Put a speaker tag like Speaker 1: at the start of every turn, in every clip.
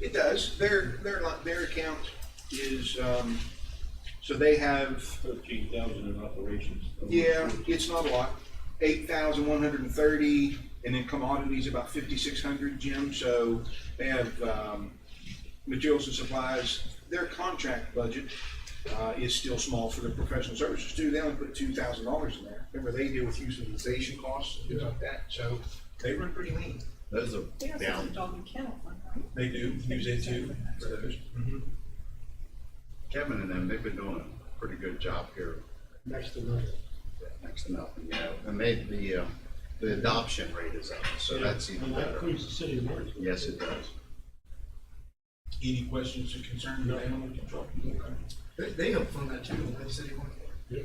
Speaker 1: It does. Their, their, li- their account is, um, so they have,
Speaker 2: Thirteen thousand in operations.
Speaker 1: yeah, it's not a lot. Eight thousand one hundred and thirty, and then commodities about fifty-six hundred, Jim, so they have, um, materials and supplies. Their contract budget, uh, is still small for their professional services too. They only put two thousand dollars in there. Remember, they deal with utilization costs, and things like that, so they run pretty lean.
Speaker 3: Those are
Speaker 4: They also have a
Speaker 3: down.
Speaker 4: dog and kennel one, right?
Speaker 1: They do use it too for those.
Speaker 3: Kevin and them, they've been doing a pretty good job here,
Speaker 5: next to nothing.
Speaker 3: next to nothing, you know, and they, the, uh, the adoption rate is up, so that's even
Speaker 5: And that
Speaker 3: better.
Speaker 5: includes the city of Martinsburg.
Speaker 3: Yes, it does.
Speaker 1: Any questions or concerns about animal control? Okay.
Speaker 6: They, they help fund that too, don't they, city one?
Speaker 5: Yeah.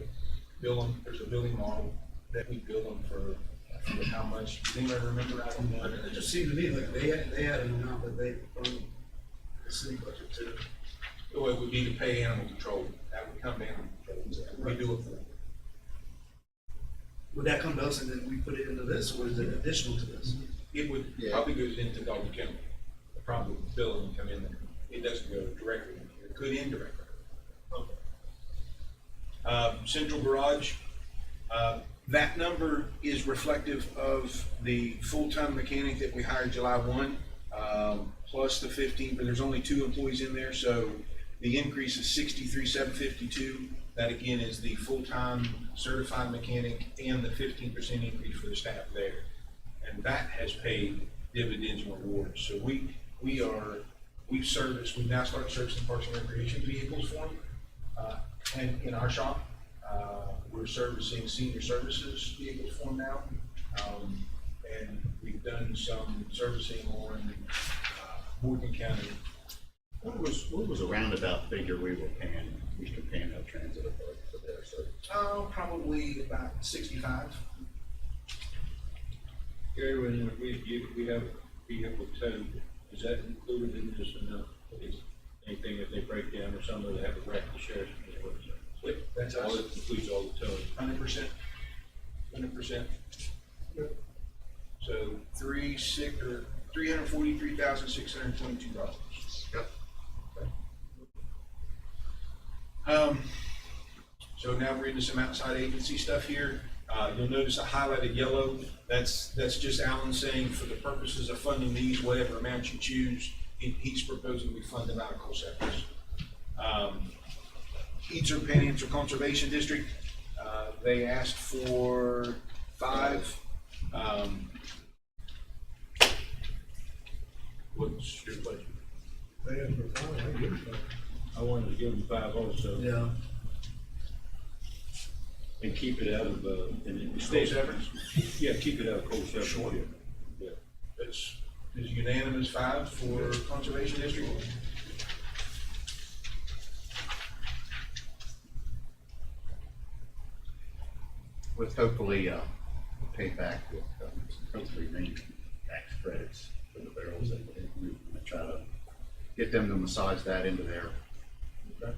Speaker 1: bill them, there's a billing model that we bill them for, for how much, does anybody remember out on
Speaker 6: It
Speaker 1: that?
Speaker 6: just seemed to me like they had, they had an amount that they funded the city budget too.
Speaker 1: Oh, it would be to pay animal control, that would come to animal control, we do it for them.
Speaker 6: Would that come to us and then we put it into this, or is it additional to this?
Speaker 1: It would,
Speaker 3: Yeah.
Speaker 1: probably goes into Dalton County, the problem with billing would come in there, it doesn't go directly, in here. it could indirectly. Okay. Uh, central garage, uh, that number is reflective of the full-time mechanic that we hired July one, um, plus the fifteen, but there's only two employees in there, so the increase is sixty-three, seven fifty-two. That again is the full-time certified mechanic and the fifteen percent increase for the staff there. And that has paid dividends and rewards, so we, we are, we've serviced, we've now started servicing parks and recreation vehicles for them uh, and in our shop. Uh, We're servicing senior services vehicles for them now. Um, And we've done some servicing on uh, Morgan County.
Speaker 3: What was, what was a roundabout figure we were paying, Eastern Panhandle Transit Authority for their service?
Speaker 1: Oh, probably about sixty-five.
Speaker 2: Gary, when we, you, we have vehicle towed, is that included in this or not? Is anything if they break down or something, they have a wreck, the sheriff's gonna work it out?
Speaker 1: That's
Speaker 2: All
Speaker 1: us,
Speaker 2: it includes all the towing.
Speaker 1: hundred percent, hundred percent. So three six, or three hundred forty-three thousand, six hundred twenty-two dollars.
Speaker 3: Yep.
Speaker 1: Um, so now we're into some outside agency stuff here. Uh, you'll notice I highlighted yellow. That's, that's just Alan saying for the purposes of funding these, whatever amount you choose, he, he's proposing we fund them out of COSAP's. Um, Eastern Panhandle Conservation District, uh, they asked for five. Um, what's your budget?
Speaker 5: They have for five, I give it five.
Speaker 2: I wanted to give them five oh, also.
Speaker 6: Yeah.
Speaker 2: And keep it out of, uh, and it
Speaker 1: Coal
Speaker 2: stays.
Speaker 1: Severance?
Speaker 2: Yeah, keep it out of cold seven.
Speaker 1: Sure.
Speaker 2: Yeah.
Speaker 1: It's, is unanimous five for Conservation District.
Speaker 3: With hopefully, uh, payback with, um, hopefully many tax credits for the barrels that they, we to try to get them to massage that into their, their,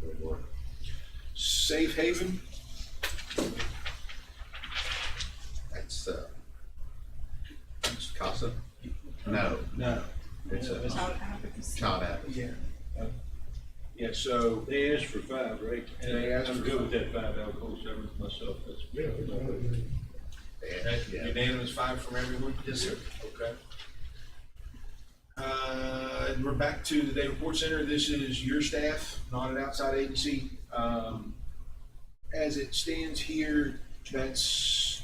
Speaker 3: their work.
Speaker 1: Safe Haven,
Speaker 3: That's, uh, it's CASA? No,
Speaker 1: no,
Speaker 3: it's a
Speaker 4: Child advocacy.
Speaker 3: child advocate.
Speaker 1: yeah. Uh, Yeah, so,
Speaker 2: They asked for five, right?
Speaker 1: And they asked
Speaker 2: I'm
Speaker 1: for
Speaker 2: good with that five out of cold seven myself, that's.
Speaker 5: Yeah, it's not good.
Speaker 1: that
Speaker 3: Yeah.
Speaker 1: unanimous five from everyone?
Speaker 6: Yes, sir.
Speaker 1: Okay. Uh, and we're back to the Day Report Center. This is your staff, not an outside agency. Um, as it stands here, that's,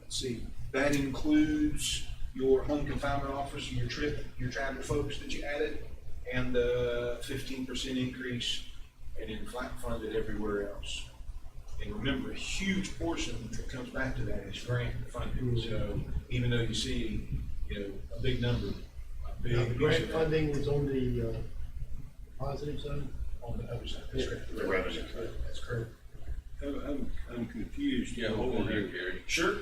Speaker 1: let's see, that includes your home confinement office, your trip, your travel folks that you added, and the fifteen percent increase, and then flat funded everywhere else. And remember, a huge portion that comes back to that is grant funding, so even though you see, you know, a big number, a big.
Speaker 5: Now, the grant
Speaker 1: piece of that
Speaker 5: funding was on the, uh, positive side.
Speaker 1: On the other side, that's correct.
Speaker 3: The revenue.
Speaker 1: That's correct.
Speaker 2: I'm, I'm, I'm confused.
Speaker 7: Yeah, hold on here, Gary.
Speaker 1: Sure,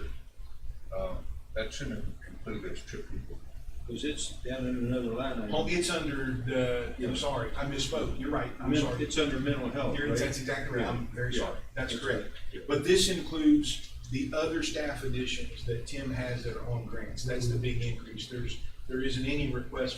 Speaker 7: Uh, that shouldn't include those trip people.
Speaker 2: Cause it's down in another line. item.
Speaker 1: Oh, it's under the, I'm sorry, I misspoke, you're right, I'm
Speaker 2: Men-
Speaker 1: sorry.
Speaker 2: It's under mental health,
Speaker 1: You're-
Speaker 2: right?
Speaker 1: That's exactly right, I'm very
Speaker 2: Yeah.
Speaker 1: sorry, that's
Speaker 2: That's
Speaker 1: correct.
Speaker 2: right. Yeah.
Speaker 1: But this includes the other staff additions that Tim has that are on grants, that's the big increase. There's, there isn't any request